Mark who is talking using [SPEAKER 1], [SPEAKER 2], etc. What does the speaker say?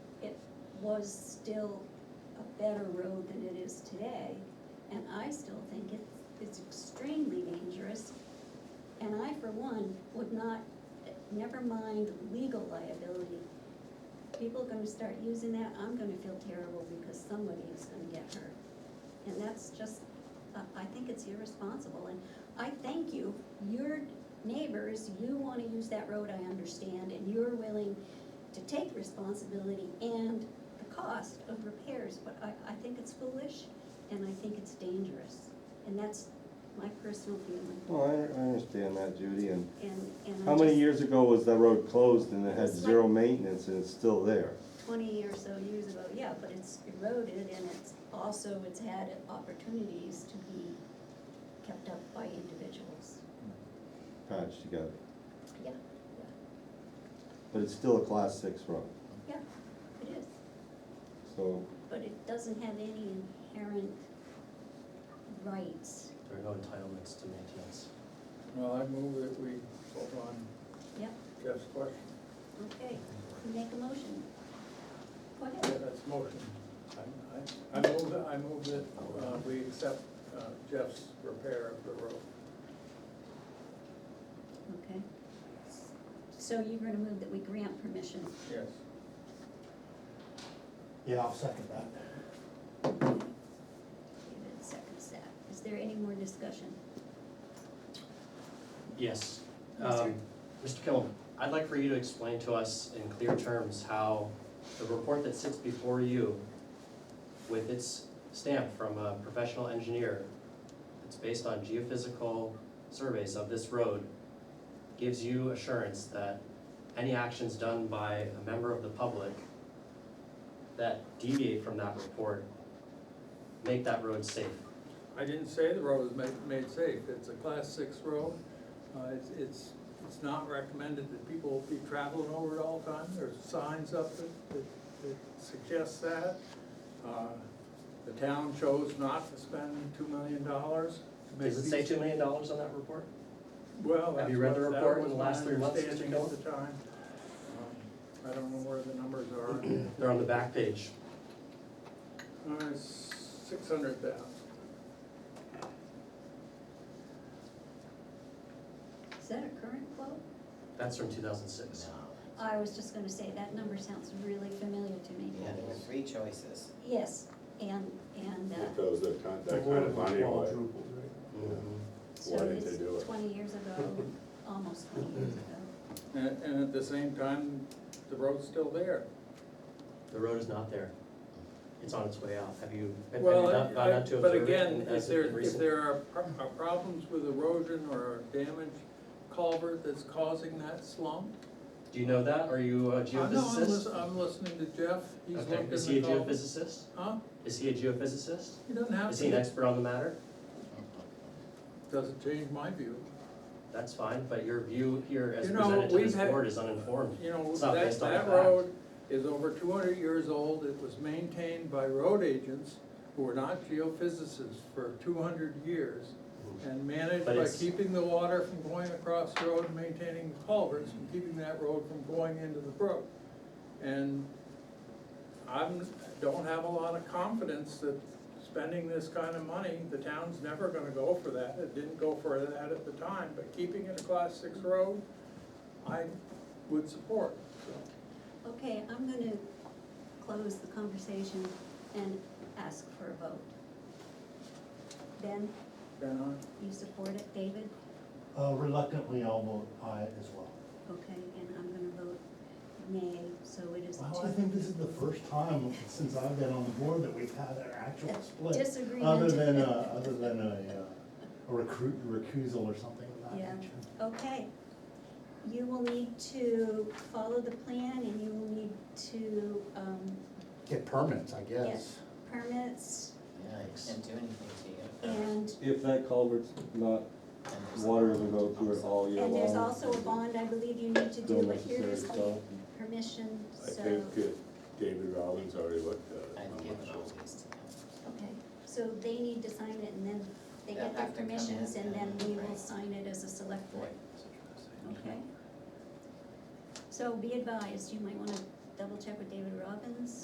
[SPEAKER 1] was still a better road than it is today. And I still think it's, it's extremely dangerous. And I, for one, would not, never mind legal liability. People are gonna start using that, I'm gonna feel terrible because somebody is gonna get hurt. And that's just, I, I think it's irresponsible, and I thank you, your neighbors, you wanna use that road, I understand, and you're willing to take responsibility and the cost of repairs, but I, I think it's foolish, and I think it's dangerous, and that's my personal feeling,
[SPEAKER 2] Well, Oh, I, I understand that, Judy, and
[SPEAKER 1] and, and I
[SPEAKER 2] how many
[SPEAKER 1] just,
[SPEAKER 2] years ago was that road closed and it had
[SPEAKER 1] It's like-
[SPEAKER 2] zero maintenance and it's still there?
[SPEAKER 1] twenty or so years ago, yeah, but it's eroded, and it's also, it's had opportunities to be kept up by individuals,
[SPEAKER 2] Patched together,
[SPEAKER 1] yeah,
[SPEAKER 2] but it's still a class six road,
[SPEAKER 1] yeah, it is.
[SPEAKER 2] so,
[SPEAKER 1] But it doesn't have any inherent rights.
[SPEAKER 3] There are no entitlements to maintenance.
[SPEAKER 4] Well, I move that we vote on
[SPEAKER 1] Yep,
[SPEAKER 4] Jeff's question.
[SPEAKER 1] okay, make a motion. Go
[SPEAKER 4] Yeah,
[SPEAKER 1] ahead.
[SPEAKER 4] that's motion. I, I, I move, that- I move that, uh, we accept uh, Jeff's repair of the road.
[SPEAKER 1] Okay. So you're gonna move that we grant permission.
[SPEAKER 4] Yes.
[SPEAKER 3] Yeah, I'll second that.
[SPEAKER 1] David seconds that. Is there any more discussion?
[SPEAKER 3] Yes.
[SPEAKER 1] Yes, sir.
[SPEAKER 3] Um, Mr. Kimmel, I'd like for you to explain to us in clear terms how the report that sits before you with its stamp from a professional engineer, it's based on geophysical surveys of this road, gives you assurance that any actions done by a member of the public that deviate from that report make that road safe.
[SPEAKER 4] I didn't say the road was made, made safe. It's a class six road. Uh, it's, it's, it's not recommended that people be traveling over it all the time. There's signs up that, that, that suggest that. Uh, The town chose not to spend two million dollars to make
[SPEAKER 3] Does it say
[SPEAKER 4] these
[SPEAKER 3] two million dollars on that report?
[SPEAKER 4] Well,
[SPEAKER 3] Have
[SPEAKER 4] that's
[SPEAKER 3] you read
[SPEAKER 4] what,
[SPEAKER 3] the
[SPEAKER 4] that
[SPEAKER 3] report in
[SPEAKER 4] was
[SPEAKER 3] the
[SPEAKER 4] my
[SPEAKER 3] last three months, Mr.
[SPEAKER 4] understanding at
[SPEAKER 3] Gillen?
[SPEAKER 4] the time. Um, I don't know where the numbers are.
[SPEAKER 3] They're on the back page.
[SPEAKER 4] Uh, six hundred thousand.
[SPEAKER 1] Is that a current quote?
[SPEAKER 3] That's from two thousand six.
[SPEAKER 1] I was just gonna say, that number sounds really familiar to me.
[SPEAKER 5] Yeah, there were three choices.
[SPEAKER 1] Yes, and, and,
[SPEAKER 6] It
[SPEAKER 1] uh,
[SPEAKER 6] goes that kind, that kind of money away.
[SPEAKER 1] so
[SPEAKER 6] Why didn't
[SPEAKER 1] it's
[SPEAKER 6] they do it?
[SPEAKER 1] twenty years ago, almost twenty years ago.
[SPEAKER 4] And, and at the same time, the road's still there.
[SPEAKER 3] The road is not there. It's on its way out. Have you, have you
[SPEAKER 4] Well,
[SPEAKER 3] not gone out
[SPEAKER 4] I-
[SPEAKER 3] to observe
[SPEAKER 4] but
[SPEAKER 3] it?
[SPEAKER 4] again,
[SPEAKER 3] and
[SPEAKER 4] if
[SPEAKER 3] has it
[SPEAKER 4] there,
[SPEAKER 3] been
[SPEAKER 4] if
[SPEAKER 3] recent-
[SPEAKER 4] there are pro- are problems with erosion or damage culvert that's causing that slump.
[SPEAKER 3] Do you know that? Are you a
[SPEAKER 4] Uh, No, I'm lis-
[SPEAKER 3] geophysicist?
[SPEAKER 4] I'm listening to Jeff, he's looked
[SPEAKER 3] Okay,
[SPEAKER 4] in the culvert.
[SPEAKER 3] is he a geophysicist?
[SPEAKER 4] Huh?
[SPEAKER 3] Is he a geophysicist?
[SPEAKER 4] He doesn't have
[SPEAKER 3] Is he an
[SPEAKER 4] to,
[SPEAKER 3] expert on the matter?
[SPEAKER 4] doesn't change my view.
[SPEAKER 3] That's fine, but your view here as
[SPEAKER 4] You know,
[SPEAKER 3] presented to
[SPEAKER 4] we've
[SPEAKER 3] this
[SPEAKER 4] had-
[SPEAKER 3] board is uninformed.
[SPEAKER 4] You know,
[SPEAKER 3] It's not
[SPEAKER 4] that,
[SPEAKER 3] based on
[SPEAKER 4] that
[SPEAKER 3] fact.
[SPEAKER 4] road is over two hundred years old, it was maintained by road agents who were not geophysicists for two hundred years and managed
[SPEAKER 3] Mm-hmm. But
[SPEAKER 4] by
[SPEAKER 3] it's-
[SPEAKER 4] keeping the water from going across the road and maintaining the culverts and keeping that road from going into the brook. And I'm, don't have a lot of confidence that spending this kind of money, the town's never gonna go for that, it didn't go for that at the time, but keeping it a class six road, I would support, so.
[SPEAKER 1] Okay, I'm gonna close the conversation and ask for a vote. Ben,
[SPEAKER 4] Ben, aye?
[SPEAKER 1] you support it, David?
[SPEAKER 7] Uh, Reluctantly, I'll vote aye as well.
[SPEAKER 1] Okay, and I'm gonna vote nay, so it is
[SPEAKER 7] Well, I
[SPEAKER 1] two.
[SPEAKER 7] think this is the first time since I've been on the board that we've had an actual split.
[SPEAKER 1] Disagreement.
[SPEAKER 7] Other than, uh, other than a, uh, a recruit, recusal or something of
[SPEAKER 1] Yeah.
[SPEAKER 7] that nature.
[SPEAKER 1] Okay. You will need to follow the plan and you will need to, um,
[SPEAKER 8] Get permits, I guess.
[SPEAKER 1] permits
[SPEAKER 5] Yeah,
[SPEAKER 3] Yikes.
[SPEAKER 5] I can't do anything to you.
[SPEAKER 1] and,
[SPEAKER 2] if that culvert's not,
[SPEAKER 5] And there's-
[SPEAKER 2] water will go through it all year long.
[SPEAKER 1] and there's also a bond I believe you need to do,
[SPEAKER 2] Still
[SPEAKER 1] but here
[SPEAKER 2] necessary,
[SPEAKER 1] is the
[SPEAKER 2] so
[SPEAKER 1] permission,
[SPEAKER 6] I
[SPEAKER 1] so.
[SPEAKER 6] think uh, David Rollins already looked at it.
[SPEAKER 5] I've
[SPEAKER 6] I'm not
[SPEAKER 5] given all
[SPEAKER 6] sure.
[SPEAKER 5] these to them.
[SPEAKER 1] Okay, so they need to sign it and then they
[SPEAKER 5] They'll
[SPEAKER 1] get their
[SPEAKER 5] have to come in
[SPEAKER 1] permissions and then we will
[SPEAKER 5] and-
[SPEAKER 1] sign it as a select board,
[SPEAKER 5] Right. Mm-hmm.
[SPEAKER 1] okay? So be advised, you might wanna double check with David Robbins